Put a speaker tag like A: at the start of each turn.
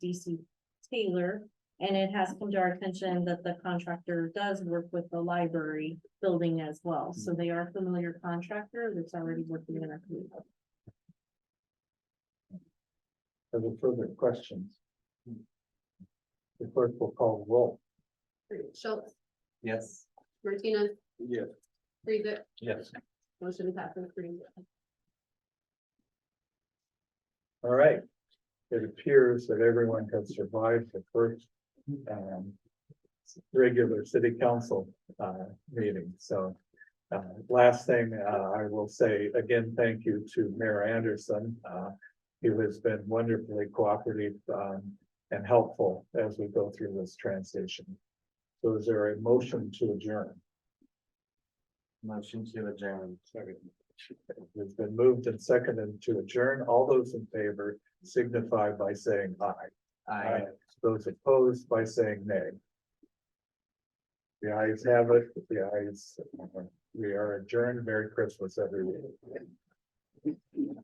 A: DC Taylor. And it has come to our attention that the contractor does work with the library building as well, so they are a familiar contractor that's already working in our community.
B: Are there further questions? The clerk will call roll.
C: Schultz,
D: Yes.
C: Martinez,
B: Yes.
C: Friesick,
D: Yes.
C: motion passes three zero.
B: All right. It appears that everyone has survived the first um regular city council uh meeting, so. Uh, last thing, uh, I will say again, thank you to Mayor Anderson. Uh, he has been wonderfully cooperative um and helpful as we go through this transition. So is there a motion to adjourn?
D: Motion to adjourn.
B: It's been moved and seconded to adjourn. All those in favor signify by saying aye.
D: Aye.
B: Those opposed by saying nay. The ayes have it, the ayes, we are adjourned. Merry Christmas, everyone.